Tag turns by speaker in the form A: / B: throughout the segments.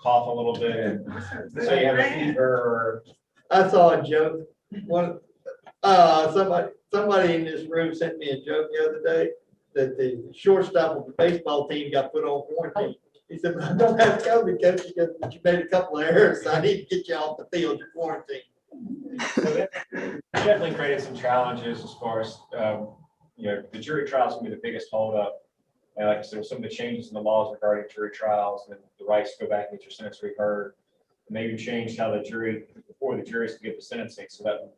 A: cough a little bit, and say you have a fever,
B: I saw a joke, one, uh, somebody, somebody in this room sent me a joke the other day that the shortstop of the baseball team got put on quarantine. He said, "But I don't have COVID, coach, because you made a couple of errors, so I need to get you off the field, you're quarantined.
A: or so that definitely created some challenges as far as, um, you know, the jury trials can be the biggest holdup. And like I said, with some of the changes in the laws regarding jury trials and the rights to go back and get your sentence reheard. And they even changed how the jury, before the juries could get the sentencing, so that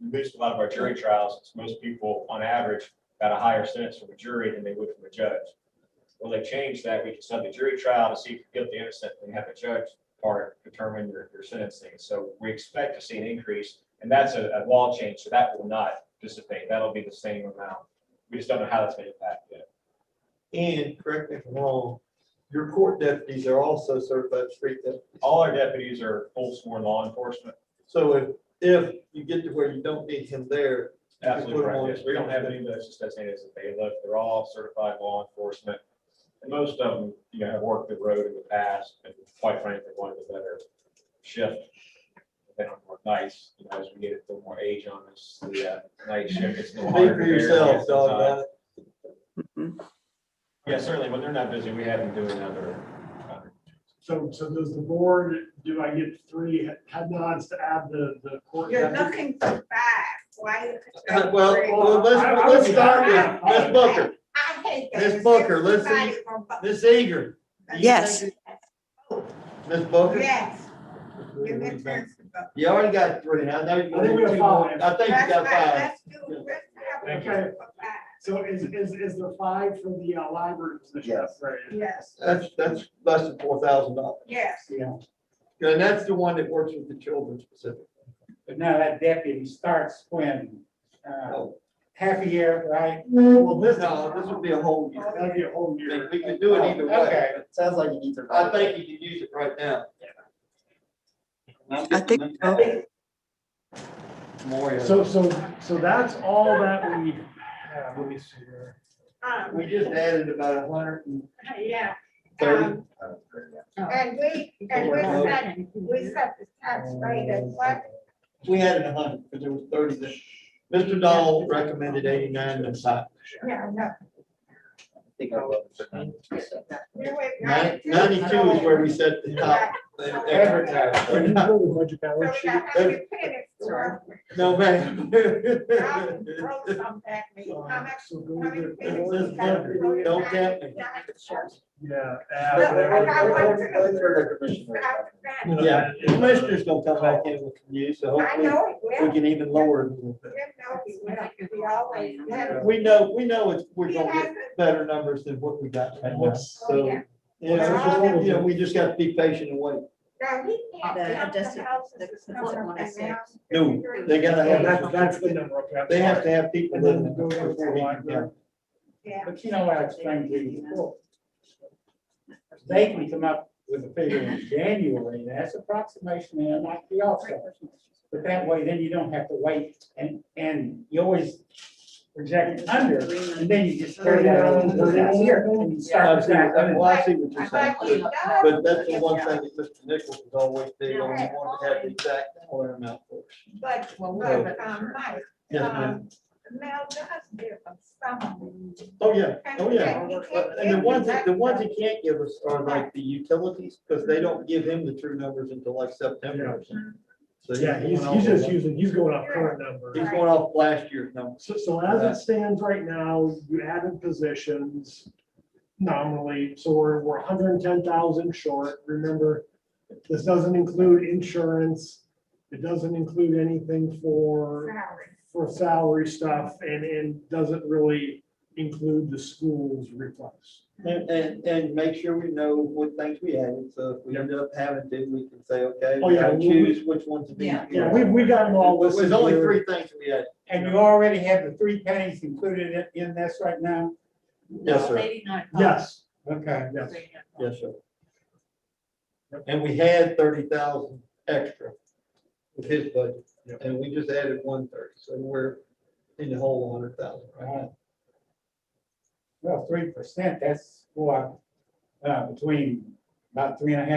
A: reduced a lot of our jury trials, since most people on average got a higher sentence from a jury than they would from a judge. Well, they changed that, we can send the jury trial to see if you're guilty or innocent, and have a judge part determine your, your sentencing. So we expect to see an increase, and that's a, a law change, so that will not dissipate, that'll be the same amount. We just don't know how that's gonna impact yet.
B: And correct me if I'm wrong, your court deputies are also certified street deputies.
A: All our deputies are full sworn law enforcement,
B: So if, if you get to where you don't need him there. you can
A: absolutely
B: put him on
A: correct, yes, we don't have any of those just designated as a bailiff, they're all certified law enforcement. And most of them, you know, have worked the road in the past, and quite frankly, wanted a better shift. They don't work nights, you know, as we get a little more age on us, the uh, night shift is a little
B: Speak
A: harder.
B: for
A: to bear,
B: yourself,
A: yes,
B: dog,
A: uh,
B: about it.
A: Yeah, certainly, when they're not busy, we have them doing other, other-
C: So, so does the board, do I get three head nods to add the, the court?
D: You're looking for five, why? you
B: Uh,
D: control
B: Well,
D: three?
B: well,
C: I-
B: let's,
C: I
B: let's
C: would-
B: start with Ms. Booker,
D: I hate that.
B: Ms. Booker, let's
D: Everybody
B: see.
D: from Bu-
B: Ms. Eager. do you
E: Yes.
B: think it- Ms. Booker?
D: Yes, give me a chance to vote.
B: You already got three, I know you
C: I think we
B: wanted
C: have
B: two more,
C: five.
B: I think you
D: That's
B: got
D: right,
B: five.
D: Let's do, let's have
A: Thank
D: a
A: you.
D: vote for five.
C: So is, is, is the five for the uh, library position?
B: Yes.
C: Right.
D: Yes,
B: That's, that's less than four thousand dollars,
D: yes,
B: and that's the one that works with the children specifically.
F: But now that deputy starts when, uh,
B: No,
F: half a year, right?
B: Well, this, no, this would be a whole year,
C: That'd be a whole
B: I mean,
C: year.
B: we could do it either way,
F: Okay.
G: Sounds like you need to.
B: I think you can use it right now.
E: I think so.
B: Moria.
C: So, so, so that's all that we, have. let me see here.
D: um,
B: We just added about a hundred and
D: yeah.
B: thirty.
D: um, And we, and we set, we set the tax rate at what?
B: We had a hundred, because there was thirty there. Mr. Dahl recommended eighty-nine and five.
D: Yeah, no. you went
B: Nin- Ninety-two is where we set the top.
D: Advertising.
B: We're not-
D: So we got how many pennies to work with.
B: No, ma'am.
D: I'll throw some at me. How much
C: Um, So go
D: How many
C: with the-
D: pennies
B: This
D: you got to
B: one,
D: throw
B: don't
D: at
B: tempt
D: me?
B: me.
C: Yeah.
D: Look, I
C: add-
D: want to- Stop that.
B: Yeah, the commissioner's gonna come back in with you, so
D: I
B: hopefully
D: know it
B: we
D: will.
B: can even lower it a little bit.
D: You know it will. We always have.
B: We know, we know it's, we're
D: He
B: gonna
D: has
B: get
D: it.
B: better numbers than what we got right now, so.
D: Oh, yeah.
B: you know, you know, we just gotta be patient and wait.
D: Now, he can't
E: The
D: count the
E: district-
D: houses
E: the-
D: that's
E: the
D: coming up
E: one
D: and
E: is six.
D: down.
B: No, they gotta
C: That's,
B: have,
C: that's the number. okay, I'm
B: they have to
C: sorry.
B: have people
C: And then
B: living
C: go to
B: before
C: the
B: we can
C: library.
B: count.
D: Yeah.
F: But you know what I explained to you before. They can come up with a figure in January, that's approximation, and it might be offset. But that way, then you don't have to wait, and, and you always project it under, and then you just carry that on to the next year. and you
B: I
F: start with
B: see, I mean,
F: that.
B: well, I see what you're
D: But
B: saying,
D: he does.
B: but that's the one thing that Mr. Nichols was always big on, he wanted to have the exact dollar amount for us.
D: But, but, um, Mike,
B: Yes, ma'am.
D: um, Mel does give them some.
B: Oh, yeah, oh, yeah.
D: And he can't
B: But- And the
D: give
B: ones,
D: you
B: that- the ones he can't give us are like the utilities, because they don't give him the true numbers until like September. or something. So
C: Yeah, he's,
B: going
C: he's
B: off-
C: just using, he's going off current numbers.
B: He's going off last year's number.
C: So, so as it stands right now, you added positions nominally, so we're, we're hundred and ten thousand short. Remember, this doesn't include insurance. It doesn't include anything for,
D: salary.
C: for salary stuff and, and doesn't really include the school's request.
B: And, and, and make sure we know what things we added, so if we end up having to, we can say, okay,
C: Oh,
B: we
C: yeah,
B: gotta
C: we-
B: choose which ones to be.
E: Yeah.
C: Yeah, we, we got them all listed.
B: There's only
C: here.
B: three things we had.
F: And you already have the three pennies included in- in this right now?
B: Yes, sir.
C: Yes,
F: Okay.
C: yes.
B: Yes, sir. And we had thirty thousand extra with his budget,
C: Yep.
B: and we just added one thirty, so we're in the whole hundred thousand right now.
F: Well, three percent, that's, what, uh, between about three and a half